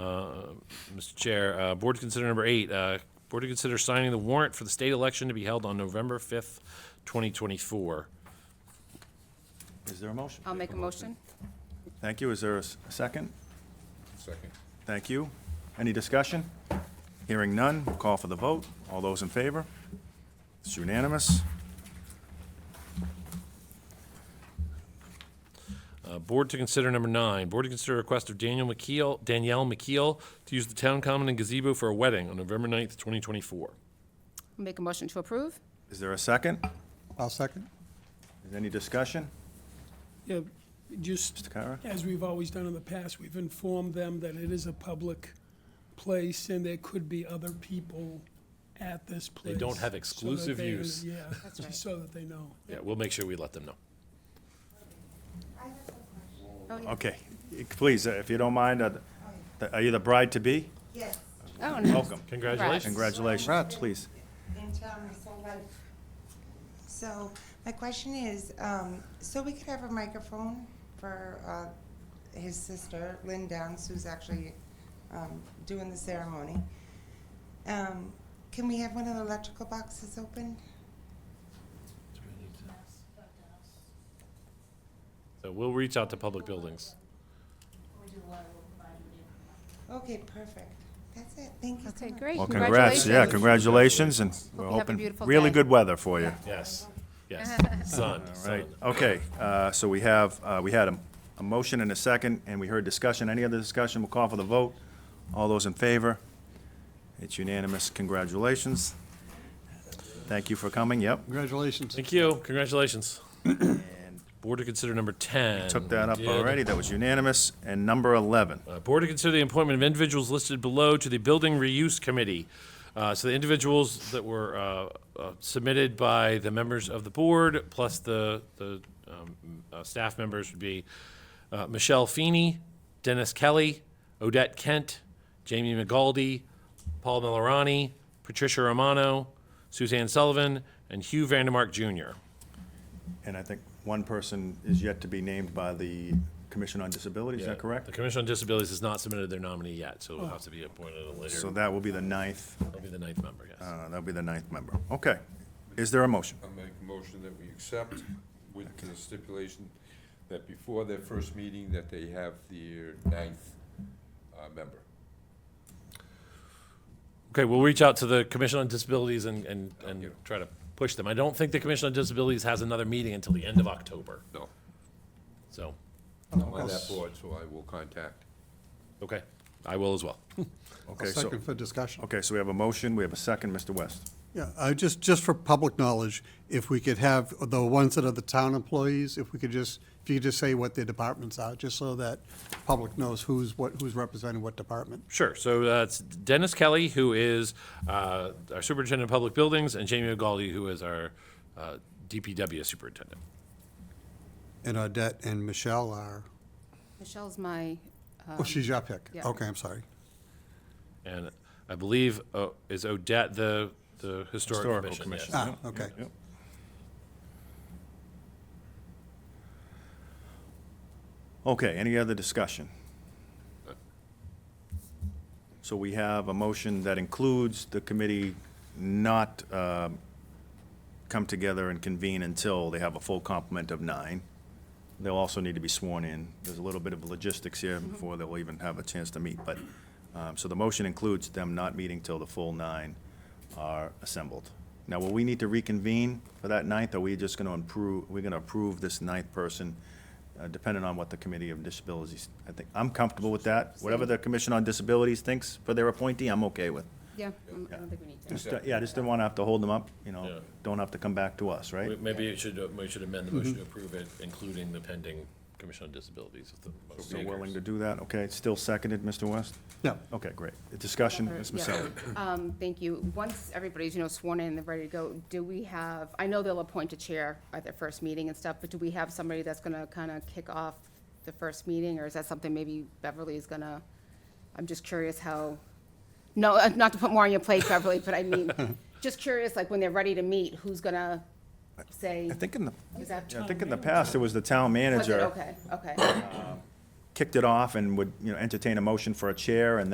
Mr. Uh, Chair, uh, board to consider number eight, uh, board to consider signing the warrant for the state election to be held on November 5th, 2024. Is there a motion? I'll make a motion. Thank you. Is there a s- a second? Second. Thank you. Any discussion? Hearing none, we'll call for the vote. All those in favor? It's unanimous. Uh, Board to consider number nine, board to consider request of Daniel McKeel, Danielle McKeel to use the town common and gazebo for a wedding on November 9th, 2024. I'll Make a motion to approve. Is there a second? I'll second. Is any discussion? Yeah, just Mr. Kara? as we've always done in the past, we've informed them that it is a public place and there could be other people at this They place. don't have so that exclusive they- use. Yeah, That's right. just so that they know. Yeah, we'll make sure we let them know. Okay, please, uh, if you don't mind, uh, th- are you the bride-to-be? Yes, Oh, no. Welcome. Congratulations. Congratulations, please. in town is so late. So my question is, um, so we could have a microphone for, uh, his sister, Lynn Downs, who's actually, um, doing the ceremony. Um, can we have one of the electrical boxes open? So we'll reach out to public buildings. Okay, perfect. That's it. Thank you so Okay, much. great. Oh. Well, congrats, yeah, congratulations, and we're you have a hoping, beautiful really day. good weather for you. Yes, yes. Son, Right, son. okay, uh, so we have, uh, we had a, a motion and a second, and we heard discussion. Any other discussion? We'll call for the vote. All those in favor? It's unanimous. Congratulations. Thank you for coming, yep. Congratulations. Thank you, congratulations. And Board to consider number 10. Took that up Did- already, that was unanimous. And number 11, Uh, Board to consider the appointment of individuals listed below to the Building Reuse Committee. Uh, So the individuals that were uh, uh, submitted by the members of the board, plus the, the um, uh, staff members would be uh, Michelle Feeney, Dennis Kelly, Odette Kent, Jamie McGaldy, Paul Millerani, Patricia Romano, Suzanne Sullivan, and Hugh Vandermark Jr. and I think one person is yet to be named by the Commission on Disability, is that The correct? Commission on Disabilities has not submitted their nominee yet, so it'll have to be appointed at a later, So that will be the ninth, it'll be the ninth member, yes. uh, that'll be the ninth member. Okay. Is there a motion? I make a motion that we accept with the stipulation that before their first meeting, that they have their ninth uh, member. Okay, we'll reach out to the Commission on Disabilities and, and, you. and try to push them. I don't think the Commission on Disabilities has another meeting until the end of October, No, so, I'm on that board, so I will contact. okay, I will as well. Okay. I'll so- second for discussion. Okay, so we have a motion, we have a second, Mr. West. Yeah, I just, just for public knowledge, if we could have the ones that are the town employees, if we could just, if you could just say what their departments are, just so that public knows who's what, who's representing what department. Sure, so that's Dennis Kelly, who is uh, our Superintendent of Public Buildings, and Jamie O'Galli, who is our uh, DPW Superintendent. And Odette and Michelle are, Michelle's my, oh, she's your pick. yeah. Okay, I'm sorry. And I believe, uh, is Odette the, the Historic Historical Commission? yes. Commission. Ah, okay. Yep. Okay, any other discussion? So we have a motion that includes the committee not um, come together and convene until they have a full complement of nine. They'll also need to be sworn in. There's a little bit of logistics here before they'll even have a chance to meet, but, um, so the motion includes them not meeting till the full nine are assembled. Now, will we need to reconvene for that ninth, or are we just gonna improve, we're gonna approve this ninth person, uh, depending on what the Committee of Disabilities, I think, I'm comfortable with that. Whatever the Commission on Disabilities thinks for their appointee, I'm okay with. yeah, I'm- I don't think we need to. Just, uh, Yeah, I just didn't wanna have to hold them up, Yeah. you know, don't have to come back to us, right? We- Maybe it should, uh, we should amend the motion to approve it, including the pending Commission on Disabilities. if the motion So makers- willing to do that, okay, still seconded, Mr. West? Yeah. Okay, great. Discussion, Ms. Yeah. Maselli? Um, Thank you. Once everybody's, you know, sworn in and ready to go, do we have, I know they'll appoint a chair at their first meeting and stuff, but do we have somebody that's going to kind of kick off the first meeting, or is that something maybe Beverly is going to, I'm just curious how, no, uh, not to put more on your plate, Beverly, but I mean, just curious, like, when they're ready to meet, who's going to say, I think in the, is that? I think in the past, it was the town Was it? manager Okay, okay. kicked it off and would, you know, entertain a motion for a chair, and